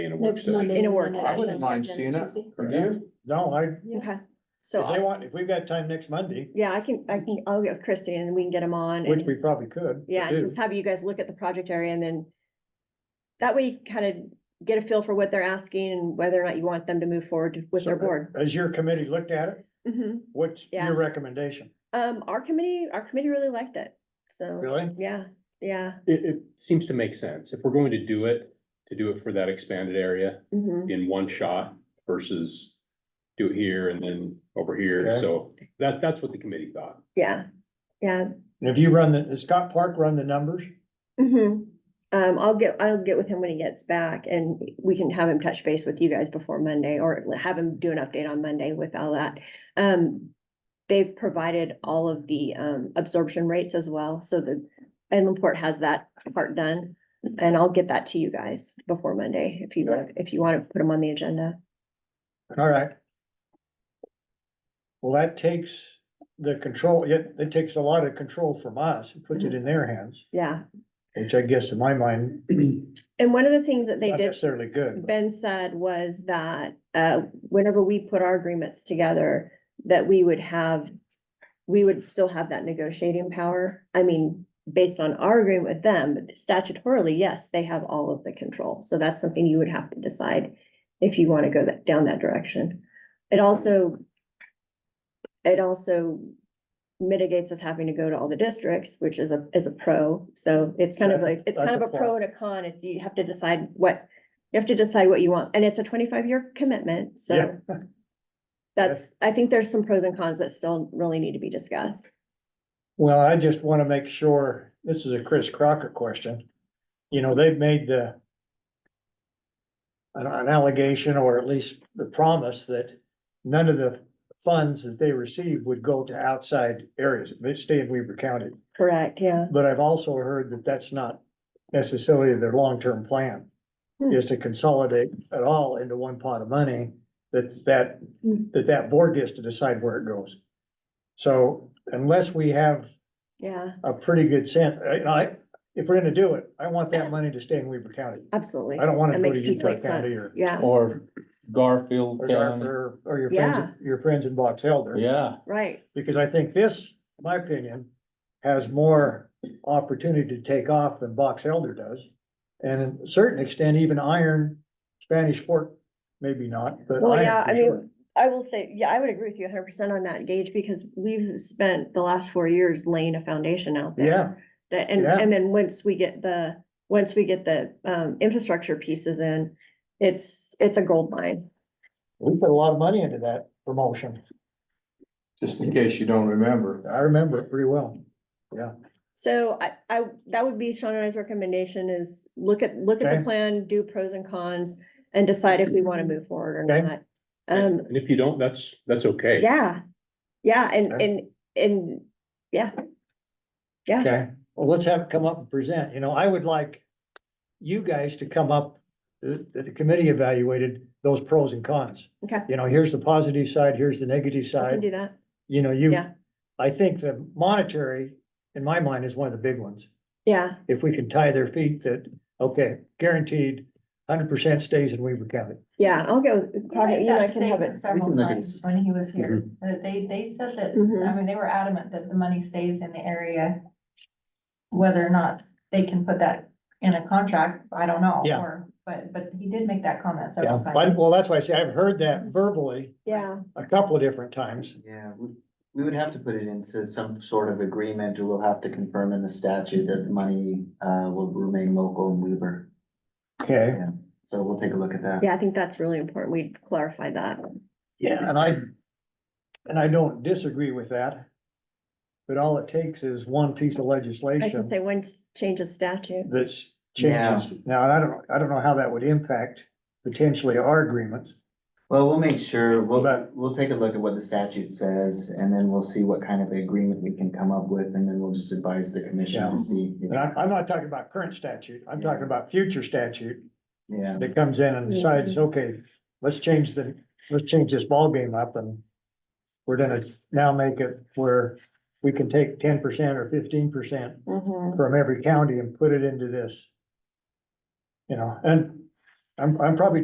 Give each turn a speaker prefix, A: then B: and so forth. A: in a work
B: Next
A: session.
B: Monday.
C: In a
B: and
C: work
B: then
C: session. I
D: wouldn't mind seeing it.
A: Correct.
E: No, I,
C: Okay, so,
E: if they
C: I-
E: want, if we've got time next Monday,
C: yeah, I can, I can, I'll get Christie and we can get him on.
E: which
C: and-
E: we probably could.
C: Yeah,
E: do.
C: and just have you guys look at the project area and then that way you kind of get a feel for what they're asking and whether or not you want them to move forward with their
E: So,
C: board.
E: As your committee looked at it,
C: Mhm.
E: what's
C: Yeah.
E: your recommendation?
C: Um, our committee, our committee really liked it, so,
E: Really?
C: yeah, yeah.
A: It, it seems to make sense. If we're going to do it, to do it for that expanded area
C: mhm.
A: in one shot versus do it here and then over here.
E: Okay.
A: So that, that's what the committee thought.
C: Yeah, yeah.
E: And if you run the, has Scott Park run the numbers?
C: mhm. Um, I'll get, I'll get with him when he gets back and we can have him touch base with you guys before Monday or have him do an update on Monday with all that. Um, they've provided all of the, um, absorption rates as well, so the Inlandport has that part done. And I'll get that to you guys before Monday if you want, if you want to put them on the agenda.
E: All right. Well, that takes the control, it, it takes a lot of control from us, It
C: Mm-hmm.
E: puts it in their hands,
C: Yeah.
E: which I guess in my mind,
C: And one of the things that they
E: not
C: did.
E: necessarily good. but-
C: Ben said was that uh, whenever we put our agreements together, that we would have, we would still have that negotiating power. I mean, based on our agreement with them, but statutorily, yes, they have all of the control. So that's something you would have to decide if you want to go that, down that direction. It also, it also mitigates us having to go to all the districts, which is a, is a pro. So it's kind of like, it's kind of a
E: That's a
C: pro and a con if you have to decide what, you have to decide what you want. And it's a twenty-five year commitment, so
E: Yeah.
C: that's, I think there's some pros and cons that still really need to be discussed.
E: Well, I just want to make sure, this is a Chris Crocker question. You know, they've made the an- an allegation or at least the promise that none of the funds that they receive would go to outside areas, they stay in Weaver County.
C: Correct, yeah.
E: But I've also heard that that's not necessarily their long-term plan.
C: Hmm.
E: Is to consolidate it all into one pot of money, that, that,
C: Hmm.
E: that that board gets to decide where it goes. So unless we have
C: Yeah,
E: a pretty good sense, I, you know, I, if we're gonna do it, I want that money to stay in Weaver County.
C: absolutely.
E: I don't want
C: That
E: it to go
C: makes
E: to Utah
C: complete
E: County
C: sense.
E: or,
C: Yeah,
D: Or Garfield
E: or,
D: County,
E: Darfur or your friends, your friends in Box Elder.
D: yeah,
C: right.
E: Because I think this, my opinion, has more opportunity to take off than Box Elder does. And in a certain extent, even Iron, Spanish Fork, maybe not, but
C: Well, yeah, I
E: Iron for sure.
C: mean, I will say, yeah, I would agree with you hundred percent on that, Gage, because we've spent the last four years laying a foundation out there.
E: Yeah,
C: That, and,
E: Yeah.
C: and then once we get the, once we get the, um, infrastructure pieces in, it's, it's a gold mine.
E: we put a lot of money into that promotion.
D: just in case you don't remember.
E: I remember it pretty well.
C: So I, I, that would be Sean and I's recommendation is look at, look at
E: Okay. Mm-hmm.
C: the plan, do pros and cons and decide if we want to move forward or
E: Okay.
C: not. Um,
A: And if you don't, that's, that's okay.
C: yeah, yeah, and,
E: Okay.
C: and, and, yeah,
E: Okay, well, let's have it come up and present, you know, I would like you guys to come up, that that the committee evaluated those pros and cons.
C: okay,
E: You know, here's the positive side, here's the negative
C: I can
E: side,
C: do that.
E: you know, you,
C: Yeah.
E: I think the monetary, in my mind, is one of the big ones.
C: Yeah,
E: If we can tie their feet that, okay, guaranteed, hundred percent stays in Weaver County.
C: yeah, I'll go,
F: Right,
C: probably, you and I
F: that
C: can have
F: statement
C: it.
F: Several
A: can make it
F: times
A: s-
F: when he was here,
E: Mm-hmm.
F: that they, they said that, I
C: Mhm.
F: mean, they were adamant that the money stays in the area. Whether or not they can put that in a contract, I don't know.
E: Yeah.
F: or- But, but he did make that comment
E: Yeah,
F: several
E: but-
F: times.
E: well, that's why I say I've heard that verbally
C: Yeah,
E: a couple of different times.
G: Yeah, we, we would have to put it into some sort of agreement, or we'll have to confirm in the statute that the money, uh, will remain local in Weaver.
E: Okay.
G: So we'll take a look at that.
C: yeah, I think that's really important. We clarified that.
E: Yeah, and I, and I don't disagree with that. But all it takes is one piece of
C: I should
E: legislation
C: say one s- change of statute.
E: that's
G: Yeah.
E: changes. Now, I don't, I don't know how that would impact potentially our agreements.
G: Well, we'll make sure, we'll,
E: But-
G: we'll take a look at what the statute says, and then we'll see what kind of agreement we can come up with, and then we'll just advise the commission
E: Yeah.
G: and see. if-
E: And I'm, I'm not talking about current statute, I'm talking about future statute
G: Yeah,
E: that comes in and decides, okay, let's change the, let's change this ballgame up and we're gonna now make it where we can take ten percent or fifteen percent
C: Mhm.
E: from every county and put it into this. You know, and I'm, I'm probably